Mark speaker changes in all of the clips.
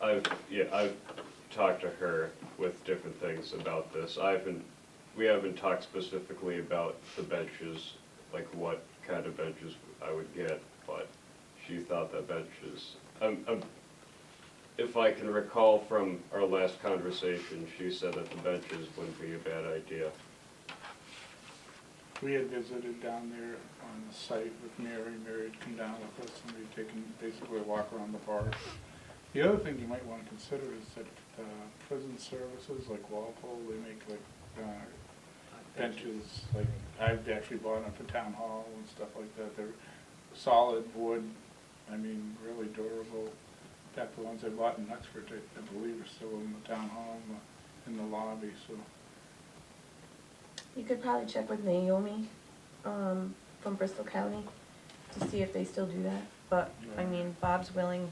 Speaker 1: I've, yeah, I've talked to her with different things about this. I haven't, we haven't talked specifically about the benches, like what kind of benches I would get, but she thought that benches, um, um, if I can recall from our last conversation, she said that the benches wouldn't be a bad idea.
Speaker 2: We had visited down there on the site with Mary, Mary had come down with us and we'd taken basically a walk around the park. The other thing you might wanna consider is that uh, prison services like Walpole, they make like uh, benches, like, I've actually bought them for town hall and stuff like that, they're solid wood, I mean, really durable. In fact, the ones I bought in Uxbridge, I I believe are still in the town hall, in the- in the lobby, so.
Speaker 3: You could probably check with Naomi, um, from Bristol County to see if they still do that, but, I
Speaker 2: Yeah.
Speaker 3: mean, Bob's willing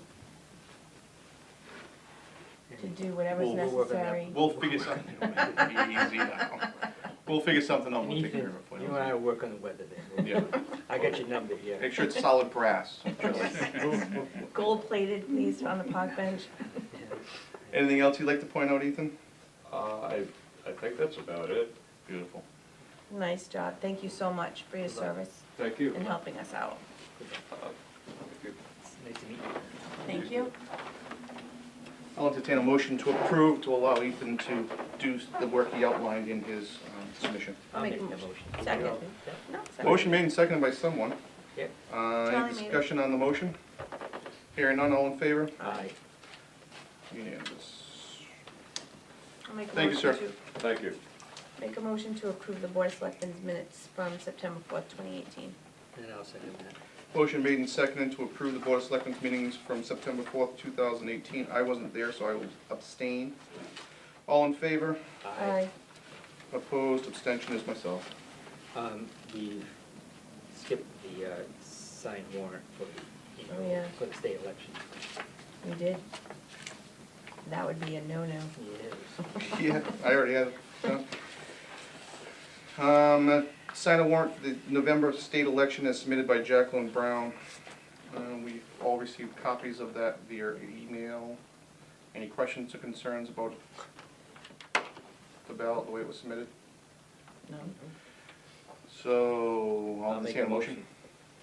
Speaker 3: to do whatever's
Speaker 4: We'll- we'll work on that.
Speaker 3: necessary.
Speaker 4: We'll figure something, it'll be easy now. We'll figure something out, we'll take care
Speaker 5: Ethan,
Speaker 4: of it. for
Speaker 5: you and I
Speaker 4: you.
Speaker 5: will work on the weather then.
Speaker 4: Yeah.
Speaker 5: I got your number here.
Speaker 4: Make sure it's solid brass.
Speaker 3: Gold plated, please, on the park bench.
Speaker 4: Anything else you'd like to point out, Ethan?
Speaker 1: Uh, I, I think that's about it.
Speaker 4: Beautiful.
Speaker 3: Nice job, thank you so much for your
Speaker 5: You're welcome.
Speaker 3: service
Speaker 1: Thank you.
Speaker 3: and helping us out.
Speaker 5: It's Nice to meet you.
Speaker 3: Thank you.
Speaker 4: I'll entertain a motion to approve to allow Ethan to do the work he outlined in his um, submission.
Speaker 3: I'll make a
Speaker 5: the
Speaker 3: motion. Second.
Speaker 5: Yeah.
Speaker 3: No, sorry.
Speaker 4: Motion made and seconded by someone.
Speaker 5: Yep.
Speaker 4: Uh,
Speaker 3: Charlie made
Speaker 4: Any
Speaker 3: it.
Speaker 4: discussion on the motion? Hearing none, all in favor?
Speaker 5: Aye.
Speaker 4: Unanimous.
Speaker 3: I'll make a
Speaker 4: Thank you,
Speaker 3: motion
Speaker 4: sir.
Speaker 3: to-
Speaker 1: Thank you.
Speaker 3: Make a motion to approve the board of selectmen's minutes from September fourth, twenty eighteen.
Speaker 5: And I'll second that.
Speaker 4: Motion made and seconded to approve the Board of Selectmen's meetings from September 4th, 2018. I wasn't there, so I will abstain. All in favor?
Speaker 3: Aye.
Speaker 4: Opposed, abstention is myself.
Speaker 5: Um, we skipped the, uh, signed warrant for the,
Speaker 3: Oh, yeah.
Speaker 5: for the state election.
Speaker 3: We did. That would be a no-no.
Speaker 5: Yes.
Speaker 4: Yeah, I already had it. done. Um, Sign a warrant for the November state election as submitted by Jacqueline Brown. Uh, We all received copies of that via email. Any questions or concerns about the ballot, the way it was submitted?
Speaker 3: No.
Speaker 4: So, I'll
Speaker 5: I'll make
Speaker 4: entertain a
Speaker 5: a
Speaker 4: motion.
Speaker 5: motion.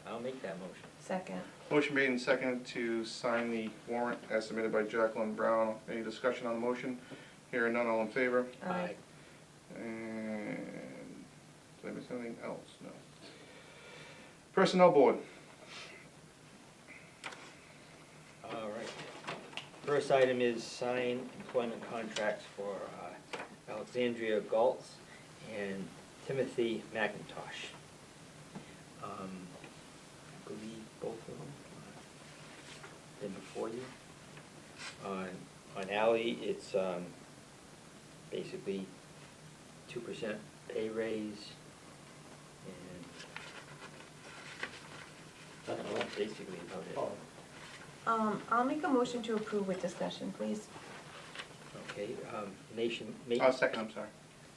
Speaker 5: I'll make that motion.
Speaker 3: Second.
Speaker 4: Motion made and seconded to sign the warrant as submitted by Jacqueline Brown. Any discussion on the motion? Hearing none, all in favor?
Speaker 3: Aye.
Speaker 4: And, did I miss anything else? No. Personnel Board,
Speaker 5: All right. First item is sign employment contracts for uh, Alexandria Galtz and Timothy McIntosh. Um, I believe both of them uh, been before you. On, on Ally, it's um, basically two percent pay raise and I don't know, that's basically about it.
Speaker 3: Um, I'll make a motion to approve with discussion, please.
Speaker 5: Okay, um, nation, ma-
Speaker 4: oh, second, I'm sorry.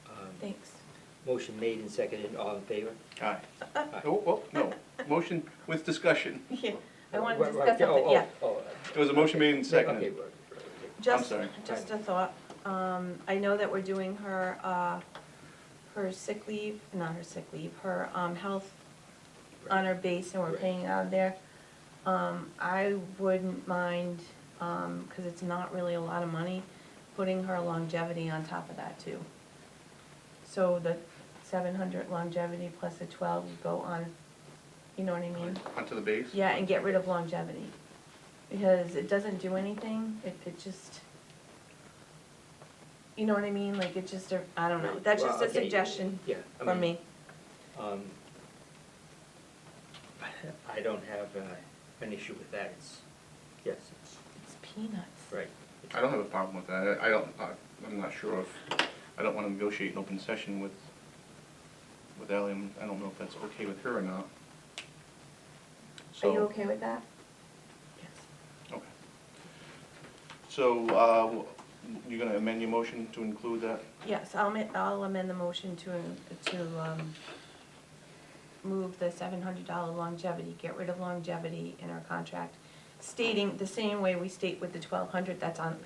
Speaker 5: um,
Speaker 3: Thanks.
Speaker 5: motion made and seconded, all in favor?
Speaker 4: Aye.
Speaker 5: Aye.
Speaker 4: Oh, oh, no, motion with discussion.
Speaker 3: Yeah, I wanted to
Speaker 5: Right, right,
Speaker 3: discuss something,
Speaker 5: oh,
Speaker 3: yeah.
Speaker 5: oh,
Speaker 4: It was a motion made and
Speaker 5: Okay,
Speaker 4: seconded.
Speaker 5: right, right, right.
Speaker 3: Just,
Speaker 4: sorry.
Speaker 3: just a thought. Um, I know that we're doing her, uh, her sick leave, not her sick leave, her, um, health on our base and we're
Speaker 5: Right.
Speaker 3: paying out of there. Um, I wouldn't mind, um, cause it's not really a lot of money, putting her longevity on top of that too. So the seven hundred longevity plus the twelve would go on, you know what I mean?
Speaker 4: Onto the base.
Speaker 3: Yeah, and get rid of longevity, because it doesn't do anything, it, it just, you know what I mean, like, it just, a- I don't know,
Speaker 5: Right.
Speaker 3: that's
Speaker 5: Well,
Speaker 3: just a
Speaker 5: okay,
Speaker 3: suggestion
Speaker 5: Yeah. I
Speaker 3: from
Speaker 5: mean,
Speaker 3: me.
Speaker 5: Um, I don't have, uh, an issue with that, it's, yes, it's,
Speaker 3: It's peanuts.
Speaker 5: right.
Speaker 4: I don't have a problem with that. I I don't, I- I'm not sure if, I don't want to negotiate an open session with, with Ally. I'm- I don't know if that's okay with her or not.
Speaker 3: Are you
Speaker 4: So-
Speaker 3: okay with that? Yes.
Speaker 4: Okay. So, uh, you're gonna amend your motion to include that?
Speaker 3: Yes, I'll ma- I'll amend the motion to, to, um, move the seven hundred dollar longevity, get rid of longevity in our contract, stating the same way we state with the twelve hundred that's on,